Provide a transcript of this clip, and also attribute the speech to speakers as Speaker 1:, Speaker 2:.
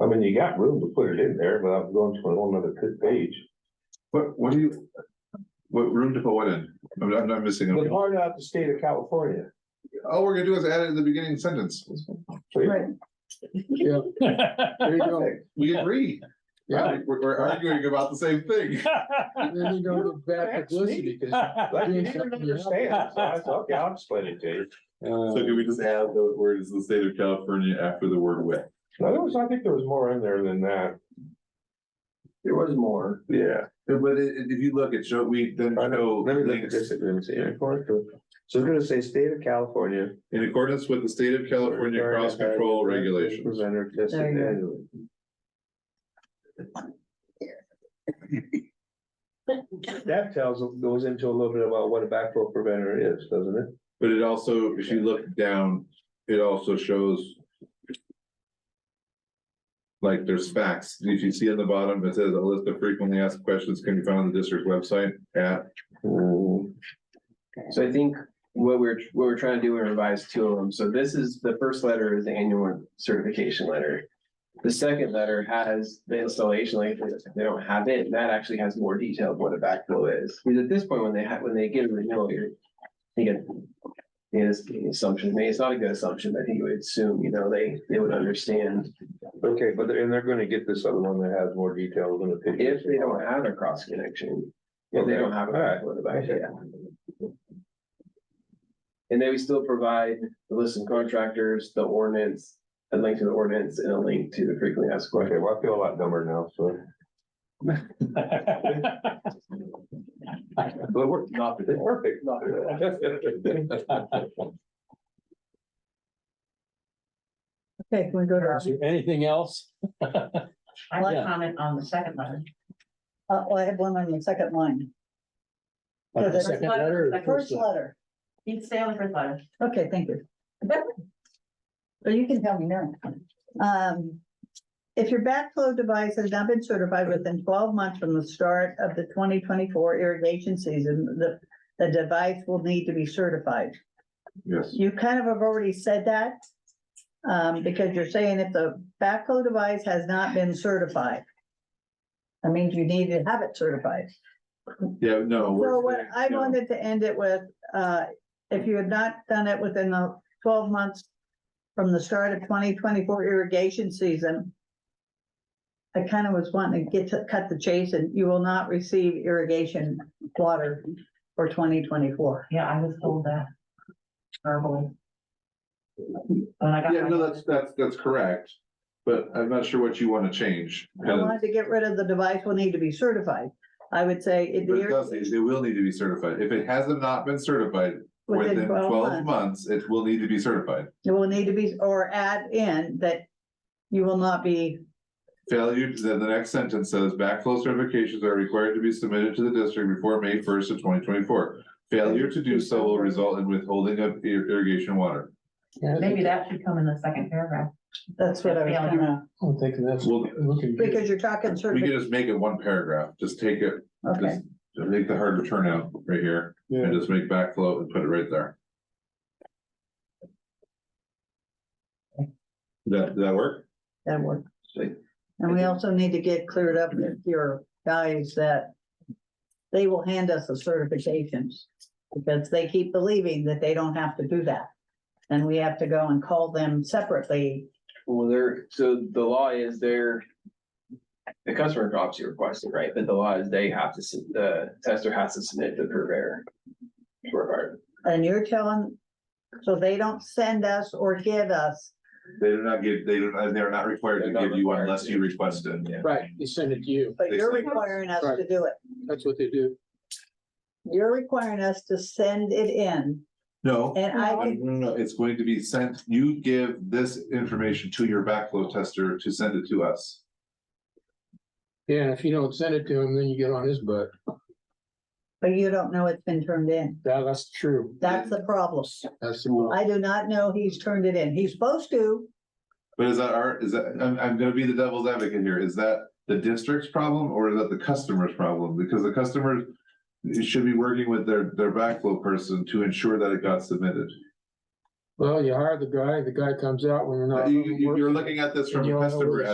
Speaker 1: I mean, you got room to put it in there without going to a whole nother p- page.
Speaker 2: What, what do you? What room to put what in? I'm, I'm not missing.
Speaker 1: The
Speaker 2: it.
Speaker 1: part out the state of California.
Speaker 2: All we're gonna do is add it in the beginning sentence.
Speaker 1: So you-
Speaker 3: Yeah, there you go.
Speaker 2: We agree.
Speaker 3: Yeah,
Speaker 2: We're, we're arguing about the same thing.
Speaker 3: and then you don't get bad publicity because
Speaker 1: Like, you didn't understand, so I said, okay, I'll explain it to you.
Speaker 2: So do we just add the words the state of California after the word with?
Speaker 1: No, there was, I think there was more in there than that.
Speaker 3: there was more.
Speaker 1: Yeah.
Speaker 2: But i- i- if you look at show, we then
Speaker 1: I know,
Speaker 2: show
Speaker 1: let me look at
Speaker 2: links
Speaker 1: this, let me see, in accordance with- so we're gonna say state of California.
Speaker 2: in accordance with the state of California cross control regulations.
Speaker 1: Presented, tested
Speaker 4: There you go.
Speaker 1: annually. That tells, goes into a little bit about what a backflow preventer is, doesn't it?
Speaker 2: But it also, if you look down, it also shows. Like there's facts, if you see on the bottom, it says a list of frequently asked questions can be found on the district website at,
Speaker 4: Mm.
Speaker 5: So I think what we're, what we're trying to do, we revised two of them. So this is, the first letter is the annual certification letter. The second letter has the installation, like if they don't have it, that actually has more detail of what a backflow is. Because at this point, when they have, when they get a renewal, you're thinking, it is the assumption, maybe it's not a good assumption, but I think you would assume, you know, they, they would understand
Speaker 1: Okay, but they're- and they're gonna get this other one that has more detail than the picture.
Speaker 5: if they don't have a cross connection. If they don't have a
Speaker 1: Okay, alright.
Speaker 5: backflow device, yeah. And then we still provide the list of contractors, the ordinance, a link to the ordinance and a link to the frequently asked
Speaker 1: Okay,
Speaker 5: questions.
Speaker 1: well, I feel a lot dumber now, so. But we're not, perfect.
Speaker 4: Okay, can we go to?
Speaker 3: Is there Anything else?
Speaker 6: I want
Speaker 3: Yeah.
Speaker 6: to comment on the second letter.
Speaker 7: Uh, well, I have one on the second line,
Speaker 3: On the
Speaker 7: First
Speaker 3: second
Speaker 6: letter,
Speaker 3: letter? or
Speaker 6: second-
Speaker 7: first letter.
Speaker 6: You stay on the first letter.
Speaker 7: Okay, thank you. But you can tell me now. Um, if your backflow device has not been certified within twelve months from the start of the twenty twenty-four irrigation season, the, the device will need to be certified.
Speaker 2: yes.
Speaker 7: You kind of have already said that. Um, because you're saying if the backflow device has not been certified. That means you need to have it certified.
Speaker 2: Yeah, no. we're
Speaker 7: So what
Speaker 2: saying,
Speaker 7: I
Speaker 2: no.
Speaker 7: wanted to end it with, uh, if you have not done it within the twelve months from the start of twenty twenty-four irrigation season, I kind of was wanting to get to cut the chase and you will not receive irrigation water for twenty twenty-four.
Speaker 6: Yeah, I was told that verbally. When I got.
Speaker 2: Yeah,
Speaker 6: my-
Speaker 2: no, that's, that's, that's correct, but I'm not sure what you want to change.
Speaker 7: I
Speaker 2: because-
Speaker 7: wanted to get rid of the device will need to be certified. I would say it
Speaker 2: But it does, it it will need to be certified. If it hasn't not been certified
Speaker 7: within twelve months,
Speaker 2: months, it will need to be certified.
Speaker 7: it will need to be, or add in that you will not be
Speaker 2: Failure, then the next sentence says backflow certifications are required to be submitted to the district before May first of twenty twenty-four. Failure to do so will result in withholding of ir- irrigation water.
Speaker 6: Maybe that should come in the second paragraph.
Speaker 7: That's what I was
Speaker 6: Failure.
Speaker 7: gonna,
Speaker 3: I'm thinking that's
Speaker 2: Well,
Speaker 3: looking good.
Speaker 7: because you're talking
Speaker 2: We
Speaker 7: certification,
Speaker 2: could just make it one paragraph, just take it,
Speaker 7: okay.
Speaker 2: just make the harder turnout right here and
Speaker 3: Yeah.
Speaker 2: just make backflow and put it right there. That, that work?
Speaker 7: That work.
Speaker 2: Sweet.
Speaker 7: And we also need to get cleared up with your guys that they will hand us the certifications because they keep believing that they don't have to do that. And we have to go and call them separately.
Speaker 5: Well, they're, so the law is they're the customer drops your request, right? But the law is they have to, sub- the tester has to submit the purveyor. to our-
Speaker 7: And you're telling, so they don't send us or give us,
Speaker 2: They do not give, they do, not. they are not required to
Speaker 5: They're not
Speaker 2: give you
Speaker 5: required
Speaker 2: unless
Speaker 5: to.
Speaker 2: you request it.
Speaker 5: Yeah.
Speaker 3: Right, they send it to you.
Speaker 7: but you're requiring us to do it.
Speaker 3: That's what they do.
Speaker 7: You're requiring us to send it in
Speaker 2: No,
Speaker 7: and I
Speaker 2: No,
Speaker 7: can,
Speaker 2: no, no, it's going to be sent, you give this information to your backflow tester to send it to us.
Speaker 3: Yeah, and if you don't send it to him, then you get on his butt.
Speaker 7: but you don't know it's been turned in.
Speaker 3: That, that's true.
Speaker 7: That's the problem.
Speaker 3: That's the one.
Speaker 7: I do not know he's turned it in. He's supposed to,
Speaker 2: But is that our, is that, I'm, I'm gonna be the devil's advocate here, is that the district's problem or is that the customer's problem? Because the customer should be working with their, their backflow person to ensure that it got submitted.
Speaker 3: Well, you hire the guy, the guy comes out when you're not.
Speaker 2: You, you- you're looking at this from
Speaker 3: You
Speaker 2: a
Speaker 3: don't know
Speaker 2: customer
Speaker 3: where-